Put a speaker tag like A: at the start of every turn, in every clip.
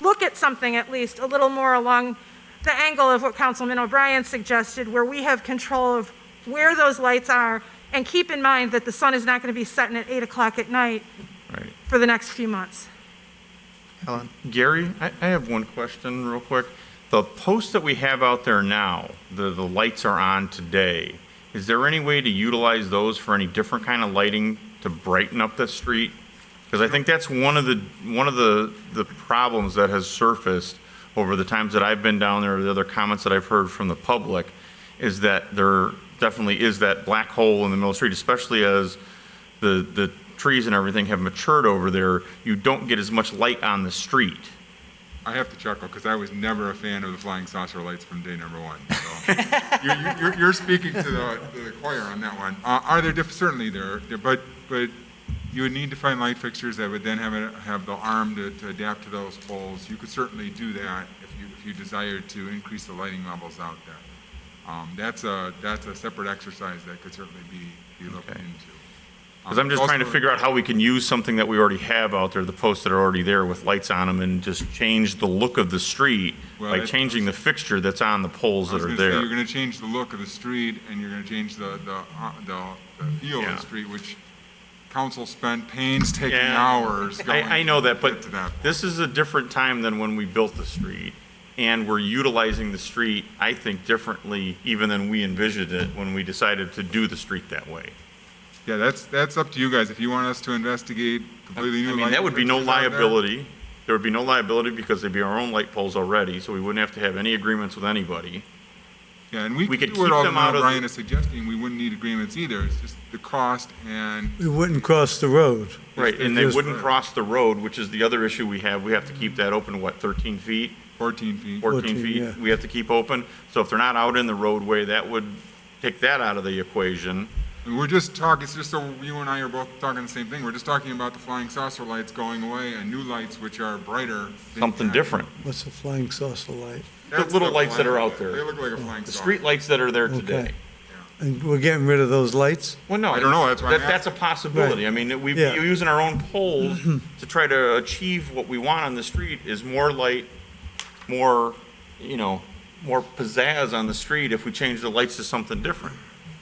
A: look at something at least a little more along the angle of what Councilman O'Brien suggested, where we have control of where those lights are, and keep in mind that the sun is not going to be setting at 8 o'clock at night
B: Right.
A: for the next few months.
B: Ellen? Gary, I, I have one question real quick. The posts that we have out there now, the, the lights are on today, is there any way to utilize those for any different kind of lighting to brighten up the street? Because I think that's one of the, one of the, the problems that has surfaced over the times that I've been down there, the other comments that I've heard from the public, is that there definitely is that black hole in the middle of the street, especially as the, the trees and everything have matured over there, you don't get as much light on the street.
C: I have to chuckle because I was never a fan of the flying saucer lights from day number one. So you're, you're, you're speaking to the, to the choir on that one. Uh, are there diff- certainly there, are- there- but but you would need to find light fixtures that would then have a, have the arm to, to adapt to those poles. You could certainly do that if you if you desired to increase the lighting levels out there. Um, that's a that's a separate exercise that could certainly be be looked
B: Okay.
C: into. Um,
B: Because I'm just trying to figure out how we can use something that we already have out there, the posts that are already there with lights on them, and just change the look of the street
C: Well,
B: by
C: that's-
B: changing the fixture that's on the poles
C: I
B: that
C: was
B: are
C: gonna say,
B: there.
C: you're gonna change the look of the street, and you're gonna change the, the, uh, the, the feel of
B: Yeah.
C: the street, which council spent painstaking
B: Yeah.
C: hours going.
B: I, I know that,
C: to
B: but
C: get to that.
B: this is a different time than when we built the street, and we're utilizing the street, I think, differently even than we envisioned it when we decided to do the street that way.
C: Yeah, that's, that's up to you guys, if you want us to investigate
B: I
C: completely new.
B: mean, that
C: lighting
B: would be no
C: fixtures out there,
B: liability. There would be no liability because they'd be our own light poles already, so we wouldn't have to have any agreements with anybody.
C: Yeah, and we
B: we
C: could
B: could
C: do it
B: keep
C: all
B: them
C: now
B: out of the-
C: Brian is suggesting, we wouldn't need agreements either, it's just the cost and,
D: It wouldn't cross the road.
B: Right, and they
D: Yes.
B: wouldn't cross the road, which is the other issue we have. We have to keep that open, what, 13 feet,
C: 14 feet.
B: 14
D: 14, yeah.
B: feet? We have to keep open. So if they're not out in the roadway, that would take that out of the equation.
C: And we're just talking, it's just so you and I are both talking the same thing, we're just talking about the flying saucer lights going away and new lights which are brighter. than
B: Something
C: that.
B: different.
D: What's a flying saucer light?
B: The
C: That's
B: little lights that are
C: flying-
B: out there.
C: They look like a flying
B: The
C: saucer.
B: street lights that are there today.
D: Okay. And we're getting rid of those lights?
B: Well, no.
C: I don't know, that's why I'm
B: that- That's a possibility. I mean, we,
D: Yeah. Mm-hmm.
B: we're using our own poles to try to achieve what we want on the street is more light, more, you know, more pizzazz on the street if we change the lights to something different.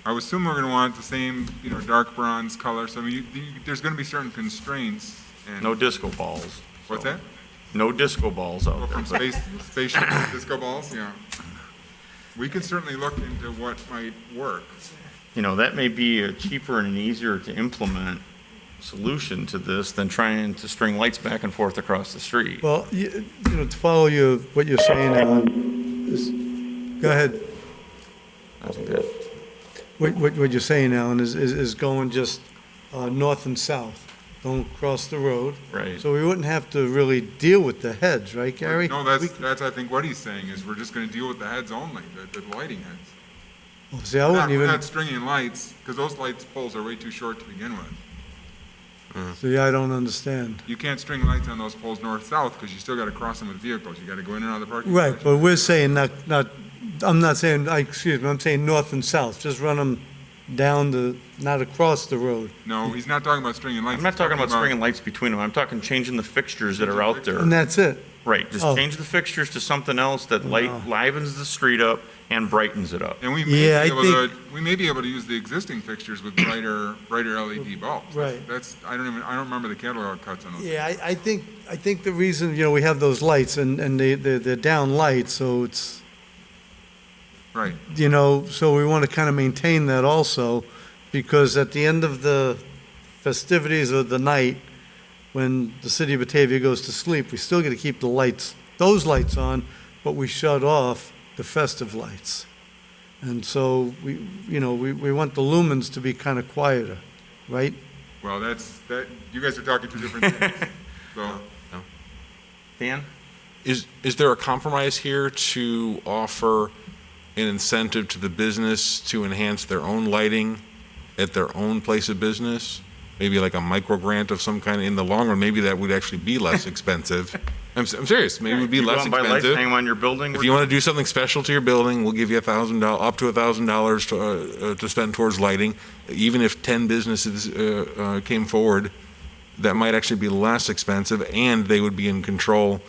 C: I would assume we're gonna want the same, you know, dark bronze color, so I mean, you, you- there's gonna be certain constraints and.
B: No disco balls.
C: What's
B: so.
C: that?
B: No disco balls
C: Well,
B: out there.
C: From
B: but-
C: space, spaceship disco balls, yeah. We can certainly look into what might work.
B: you know, that may be a cheaper and an easier to implement solution to this than trying to string lights back and forth across the street.
D: Well, you, you know, to follow you, what you're saying, Alan, is, go ahead.
B: I think that-
D: What, what, what you're saying, Alan, is, is, is going just, uh, north and south. Don't cross the road.
B: Right.
D: So we wouldn't have to really deal with the heads, right, Gary?
C: No, that's,
D: We-
C: that's, I think what he's saying is we're just gonna deal with the heads only, the, the lighting heads.
D: Well, See, I
C: We're not-
D: wouldn't
C: We're
D: even,
C: not stringing lights, because those lights poles are way too short to begin with.
D: see, I don't understand.
C: You can't string lights on those poles north-south, because you still gotta cross them with vehicles, you gotta go in and out of the parking.
D: Right,
C: garage.
D: but we're saying not, not, I'm not saying, I, excuse me, I'm saying north and south. Just run them down the, not across the road.
C: No, he's not talking about stringing lights.
B: I'm not
C: he's
B: talking about stringing lights between them. I'm talking changing the fixtures that are out there.
D: And that's it.
B: Right, just
D: Oh.
B: change the fixtures to something else that light livens the street up and brightens it up.
C: And we may
D: Yeah, I
C: be able to, we may be able to use the existing fixtures with brighter, brighter LED bulbs. That's-
D: Right.
C: That's, I don't even, I don't remember the catalog cuts on those.
D: Yeah, I, I think, I think the reason, you know, we have those lights and, and they, they're, they're down light, so it's,
C: Right.
D: you know, so we want to kind of maintain that also, because at the end of the festivities of the night, when the city of Batavia goes to sleep, we still got to keep the lights, those lights on, but we shut off the festive lights. And so we, you know, we, we want the lumens to be kind of quieter, right?
C: Well, that's, that, you guys are talking two different things. So,
B: Dan?
E: Is, is there a compromise here to offer an incentive to the business to enhance their own lighting at their own place of business? Maybe like a micro grant of some kind in the long run, maybe that would actually be less expensive. I'm, s- I'm serious, maybe it would be
B: You go
E: less
B: out and buy lights, hang
E: expensive.
B: 'em on your building?
E: If you want to do something special to your building, we'll give you a thousand dollars, up to a thousand dollars to, uh, uh, to spend towards lighting. Even if ten businesses, uh, uh, came forward, that might actually be less expensive and they would be in control